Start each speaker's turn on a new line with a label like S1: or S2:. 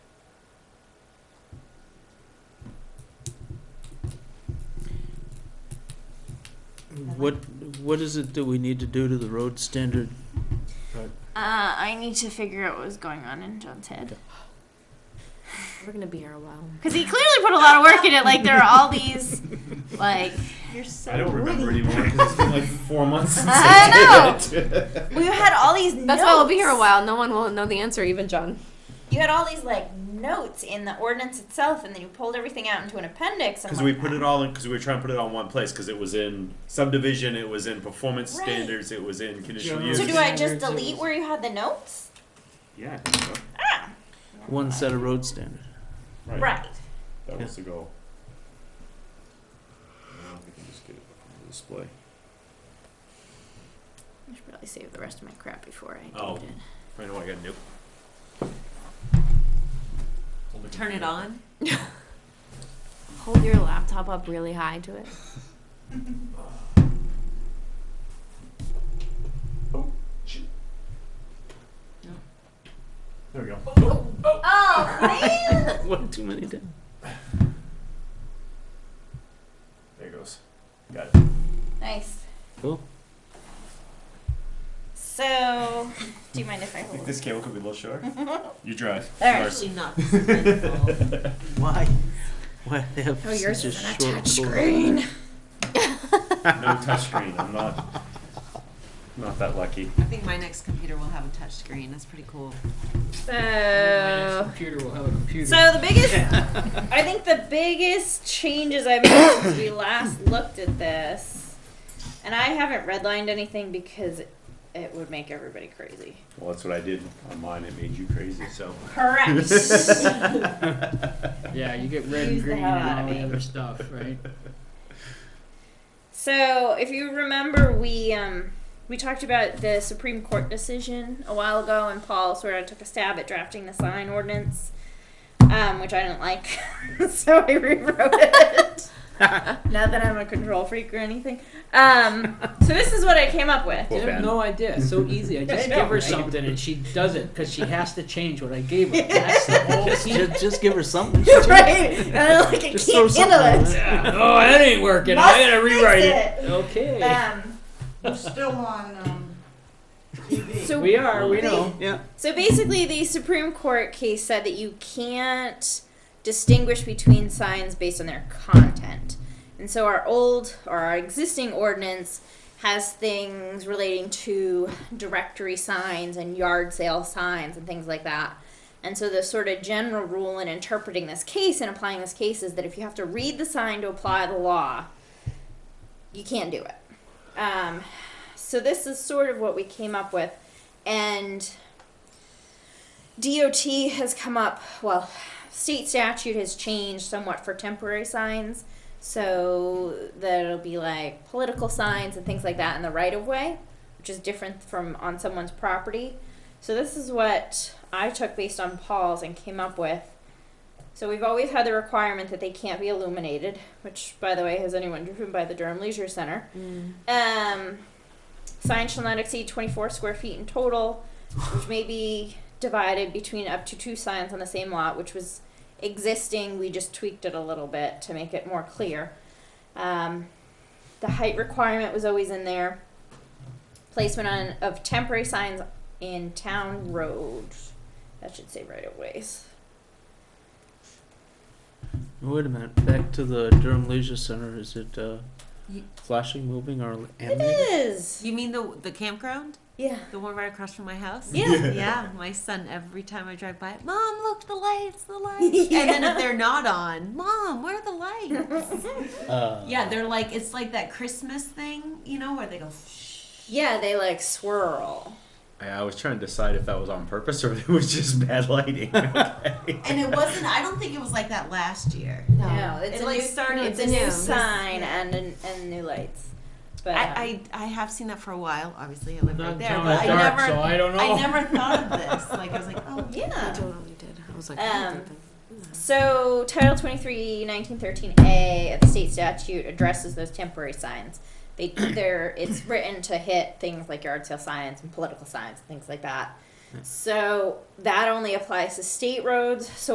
S1: What, what is it that we need to do to the road standard?
S2: Uh, I need to figure out what was going on in John's head.
S3: We're gonna be here a while.
S2: Because he clearly put a lot of work in it. Like, there are all these, like,
S4: You're so
S5: I don't remember
S4: witty.
S5: anymore because it's been like four months since
S2: I
S5: I, did it.
S4: Well, you had all these.
S3: That's why we'll be here a
S4: notes.
S3: while. No one will know the answer, even John.
S4: You had all these like notes in the ordinance itself, and then you pulled everything out into an appendix.
S5: Because we put it all in, because we were trying to put it all in one place, because it was in subdivision, it was in performance
S4: Right.
S5: standards, it was in conditional
S1: General
S5: use.
S4: So do I just
S1: Standards, it
S4: delete
S1: was-
S4: where you had the notes?
S5: yeah, I think so.
S4: Ah,
S1: One set of road standard.
S5: right.
S4: right.
S5: That
S1: Yeah.
S5: was the goal. Now we can just get it up on the display.
S2: I should probably save the rest of my crap before I
S5: Oh.
S2: delete it.
S5: I know I got nope.
S6: Turn it on.
S3: Hold your laptop up really high to it.
S5: There we go.
S4: Oh man!
S1: One too many down.
S5: There it goes. Got it.
S4: nice.
S1: Cool.
S4: So, do you mind if I
S5: I think
S4: hold?
S5: this cable could be a little short. you drive.
S4: There.
S5: Yours.
S6: Actually, not. this eventful.
S1: Why? Why they have
S4: Oh,
S1: such a short screen?
S5: No touchscreen. I'm not not that lucky.
S6: I think my next computer will have a touch screen. That's pretty cool.
S4: So,
S7: computer will have a computer.
S4: so the biggest, I think the biggest changes I've made since we last looked at this, and I haven't redlined anything because it would make everybody crazy.
S5: Well, that's what I did on mine. It made you crazy. So
S4: Correct.
S7: yeah, you get red
S4: Use
S7: and
S4: the
S7: green
S4: hell out
S7: and all
S4: of
S7: the
S4: me.
S7: other stuff, right?
S4: So, if you remember, we um, we talked about the Supreme Court decision a while ago, and Paul sort of took a stab at drafting the sign ordinance, um, which I didn't like, so I rewrote it. Not that I'm a control freak or anything. Um, so this is what I came up with.
S5: Well,
S7: I
S5: Ben.
S7: have no idea. It's so easy. I just
S4: know,
S7: give her
S4: right?
S7: something and she does it because she has to change what I gave her. That's the whole
S1: Just,
S7: scene.
S1: just, just give her something.
S4: right? And I'm like, I
S1: Just throw
S4: can't
S1: something
S4: handle
S1: in
S4: it.
S7: Yeah. Oh, that ain't working.
S4: Must
S7: I gotta
S4: fix
S7: rewrite it.
S4: it.
S7: Okay.
S4: Um,
S8: We're still on um, TV.
S4: so
S7: we are. We know.
S1: Yeah.
S4: So basically, the Supreme Court case said that you can't distinguish between signs based on their content. And so our old or our existing ordinance has things relating to directory signs and yard sale signs and things like that. And so the sort of general rule in interpreting this case and applying this case is that if you have to read the sign to apply the law, you can't do it. Um, so this is sort of what we came up with. And DOT has come up, well, state statute has changed somewhat for temporary signs. So that'll be like political signs and things like that in the right of way, which is different from on someone's property. So this is what I took based on Paul's and came up with. So we've always had the requirement that they can't be illuminated, which by the way, has anyone driven by the Durham Leisure Center?
S3: Mm.
S4: Um, sign shall not exceed twenty-four square feet in total, which may be divided between up to two signs on the same lot, which was existing. We just tweaked it a little bit to make it more clear. Um, the height requirement was always in there. Placement on of temporary signs in town roads. That should say right of ways.
S1: Wait a minute. Back to the Durham Leisure Center. Is it uh,
S6: Ye-
S1: flashing, moving, or
S4: It
S1: animated?
S4: is.
S6: You mean the the campground?
S4: Yeah.
S6: The one right across from my house?
S4: Yeah.
S6: Yeah, my son, every time I drive by it, Mom, look, the lights, the lights. And then if they're not on, Mom, where are the lights?
S1: Uh,
S6: yeah, they're like, it's like that Christmas thing, you know, where they go, shh.
S4: Yeah, they like swirl.
S5: I, I was trying to decide if that was on purpose or it was just bad lighting. Okay.
S6: And it wasn't, I don't think it was like that last year.
S4: No, it's
S6: It,
S4: a
S6: like,
S4: new
S6: started
S4: It's a
S6: new.
S4: new sign and and, and new lights. But um,
S6: I, I, I have seen that for a while. Obviously, I live right
S7: Not
S6: there,
S7: until
S6: but
S7: it's
S6: I
S7: dark,
S6: never,
S7: so I don't know.
S6: I never thought of this. Like I was like, oh
S3: I
S4: yeah.
S3: totally did. I was like,
S4: Um, So, Title 23, 1913A of the state statute addresses those temporary signs. They, they're, it's written to hit things like yard sale signs Hmm. and political signs and things like that. So, that only applies to state roads. So,